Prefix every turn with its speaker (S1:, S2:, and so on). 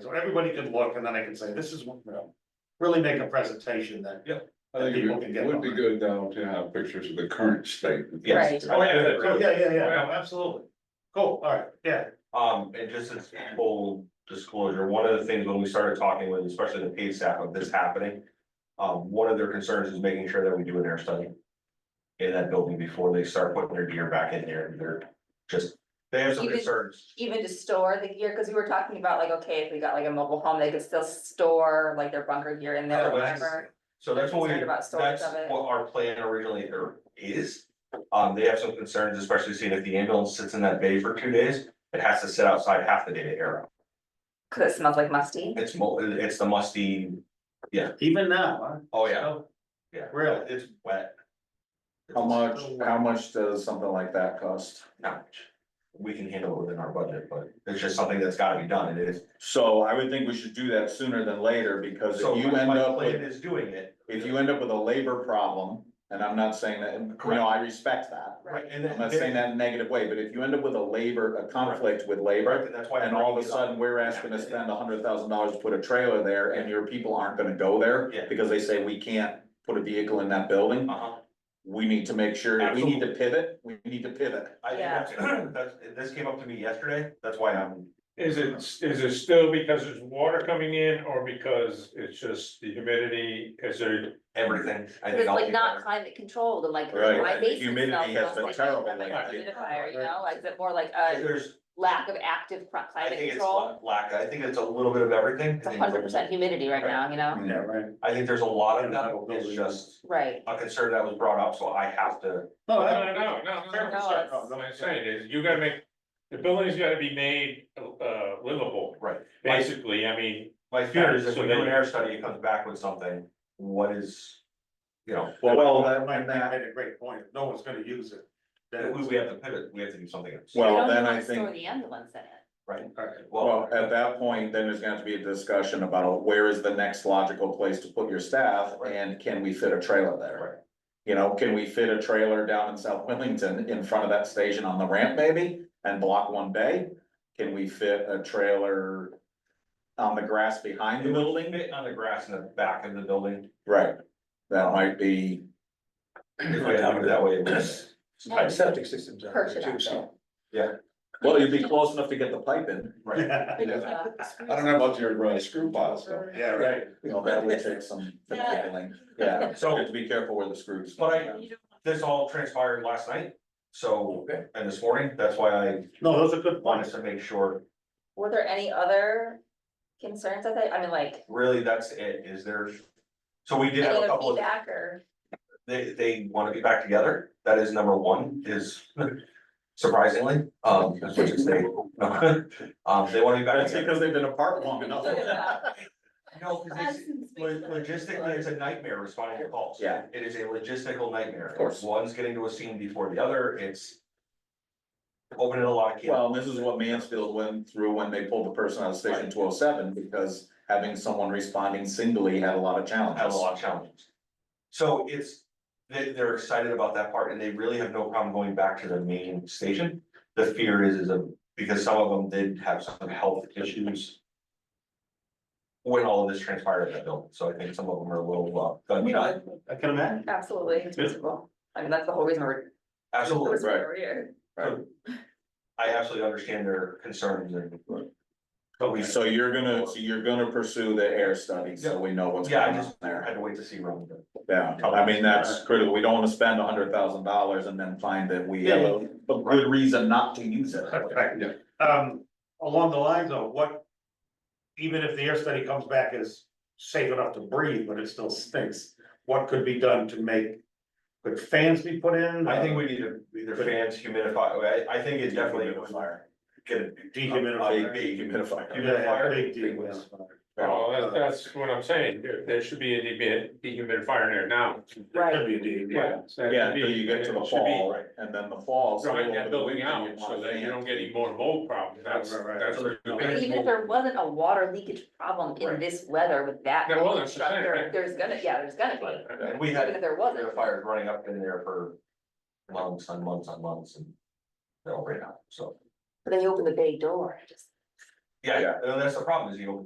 S1: so everybody can look and then I can say, this is, what, you know, really make a presentation that.
S2: I think
S1: People can
S2: it
S1: get
S2: would be
S1: behind.
S2: good now to have pictures of the current state.
S3: Yes.
S1: Oh, yeah, yeah, yeah, yeah, yeah, yeah,
S4: Yeah.
S1: no, absolutely. Cool, all right, yeah,
S4: Um, and just as full disclosure, one of the things when we started talking with, especially the paid staff of this happening. Um, one of their concerns is making sure that we do an air study. In that building before they start putting their gear back in there, and they're just, they have some
S3: Even-
S4: concerns.
S3: even to store the gear, because we were talking about like, okay, if we got like a mobile home, they could still store like their bunker gear in there or
S4: Otherwise,
S3: whatever.
S4: So that's what we,
S3: Concerned about
S4: that's
S3: storage of it.
S4: what our plan originally or is. Um, they have some concerns, especially seeing if the ambulance sits in that bay for two days, it has to sit outside half the day to air out.
S3: Cause it smells like musty.
S4: It's mo- it's the musty,
S1: even now, huh?
S4: oh yeah, yeah.
S1: Really?
S4: It's wet.
S5: How much, how much does something like that cost?
S4: Not much. We can handle it within our budget, but it's just something that's gotta be done, and it is.
S5: So I would think we should do that sooner than later, because
S4: So
S5: if you
S4: my-
S5: end
S4: my
S5: up
S4: plan
S5: with,
S4: Is doing it.
S5: if you end up with a labor problem, and I'm not saying that, you know, I respect that.
S4: Right, and
S5: I'm not saying that in a negative way, but if you end up with a labor, a conflict with labor,
S4: Right, and that's why. I'm
S5: and all of a
S4: bringing it up.
S5: sudden, we're asking to spend a hundred thousand dollars to put a trailer there, and your people aren't gonna go there.
S4: Yeah.
S5: Because they say we can't put a vehicle in that building,
S4: Uh-huh.
S5: we need to make sure, we need to pivot, we need to pivot.
S4: I think
S3: Yeah.
S4: that's, that's- this came up to me yesterday, that's why I'm,
S6: Is it, is it still because there's water coming in or because it's just the humidity, is there?
S4: everything. I
S3: Cause
S4: think
S3: it's
S4: I'll
S3: like
S4: be
S3: not
S4: better.
S3: climate controlled and like
S5: Right.
S3: my
S5: The
S3: basement
S5: humidity
S3: smells.
S5: has been
S3: like
S5: terrible
S3: from a
S5: lately.
S3: Humidifier, you know, like is it more like a
S4: There's,
S3: lack of active cri-
S4: I
S3: climate
S4: think it's
S3: control?
S4: lack, I think it's a little bit of everything.
S3: It's hundred percent humidity right now, you know?
S1: yeah, right.
S4: I think there's a lot of that, it's just
S3: Right.
S4: a concern that was brought up, so I have to,
S1: No,
S6: No,
S1: I-
S6: no, no,
S3: No,
S6: no, no,
S3: it's-
S6: no, no, what I'm saying is, you gotta make, the building's gotta be made uh livable,
S4: right. My-
S6: basically, I mean.
S4: My fear is if
S6: So
S4: we
S6: then-
S4: do an air study, it comes back with something, what is, you know,
S5: Well,
S1: That
S5: that-
S1: might,
S5: and
S1: that
S5: that-
S1: made a great point, If no one's gonna use it. then
S4: we, we have to pivot, we have to do something else.
S5: Well,
S3: We don't
S5: then
S3: even
S5: I
S3: wanna Store
S5: think-
S3: the ambulance in it.
S4: Right,
S1: all right.
S5: Well, at that point, then there's gonna have to be a discussion about where is the next logical place to put your staff and can we fit a trailer
S4: Right.
S5: there? You know, can we fit a trailer down in South Wilmington in front of that station on the ramp maybe and block one bay? Can we fit a trailer on the grass behind
S4: It
S5: the
S4: will
S5: building?
S4: fit on the grass in the back of the building,
S5: Right, that might be,
S4: if we have to do it that way, it was.
S3: No.
S7: Septic systems. out there
S3: Perch it
S7: too,
S3: out
S7: so-
S3: there.
S5: well, you'd be close enough to get the pipe in.
S4: Right,
S2: I don't know about your uh, screw piles, though.
S1: Yeah, right.
S5: You know, that would take some finagling, yeah, so
S4: so.
S5: to be careful where the screws.
S4: But I, this all transpired last night, so,
S7: Okay.
S4: and this morning, that's why I
S1: No, those are good
S4: wanted
S1: points.
S4: to make sure,
S3: Were there any other concerns I think? I mean, like,
S4: really, that's it, is there. So we did
S3: any
S4: have a
S3: other
S4: couple of,
S3: feedback or?
S4: they, they wanna be back together, that is number one, is surprisingly, um, as much as they. Um, they wanna be back
S5: That's
S4: together.
S5: because they've been apart long enough.
S4: No, 'cause it's- Lo- Logistically, it's a nightmare responding to calls.
S5: Yeah.
S4: It is a logistical nightmare.
S5: Of course.
S4: One's getting to a scene before the other, it's. Opening a lot of. cans.
S5: Well, this is what Mansfield went through when they pulled the person out of station two oh seven, because having someone responding singly had a lot of
S4: have a
S5: challenges.
S4: lot of challenges. So it's, they, they're excited about that part and they really have no problem going back to the main station. The fear is, is a, because some of them did have some health issues. When all of this transpired at that building, so I think some of them are a little, uh, gunshot.
S1: I can imagine.
S3: Absolutely, it's feasible. I mean, that's the whole reason we're.
S4: Absolutely,
S3: that's why we're here.
S4: I absolutely understand their concerns and. But we,
S5: So you're gonna, so you're gonna pursue the air study, so we know what's
S4: Yeah, I
S5: going on
S4: just- I had
S5: there.
S4: to wait to see Ron, but
S5: Yeah, I mean, that's critical. We don't wanna spend hundred thousand dollars and then find that we have a, a good reason not to use it.
S1: Right. Um, along the lines of what, even if the air study comes back as safe enough to breathe, but it still stinks, what could be done to make, could fans be put in? Uh,
S4: I think we need to, either fans humidify, I, I think it definitely was fire. Get a
S1: Dehumidifier.
S4: a big
S1: Yeah,
S5: Dehumidifier.
S1: yeah,
S4: Humidifier.
S1: big dehumidifier.
S6: Well, that's, that's what I'm saying, there, there should be a dehumid- dehumidifier in there now.
S3: Right.
S6: Yeah.
S5: Yeah, until you get to the fall, and then the fall. so
S6: Drawing
S5: over
S6: that
S5: the
S6: building
S5: weekend,
S6: out
S5: you'd
S6: so
S5: want
S6: that you
S5: fans.
S6: don't get any more mold problems, that's,
S1: Right, right,
S6: that's.
S4: right.
S6: the
S3: But
S6: biggest
S3: even if
S6: mold.
S3: there wasn't a water leakage problem in
S4: Right.
S3: this weather with that.
S6: There wasn't, that's what I'm saying,
S3: structure,
S6: right?
S3: There's gonna, yeah, there's gonna be,
S4: And we
S3: even
S4: had
S3: if there wasn't.
S4: humidifiers running up in there for months on months on months and they're all right now, so.
S3: But then you open the bay door, just.
S4: Yeah, and that's the problem is you open the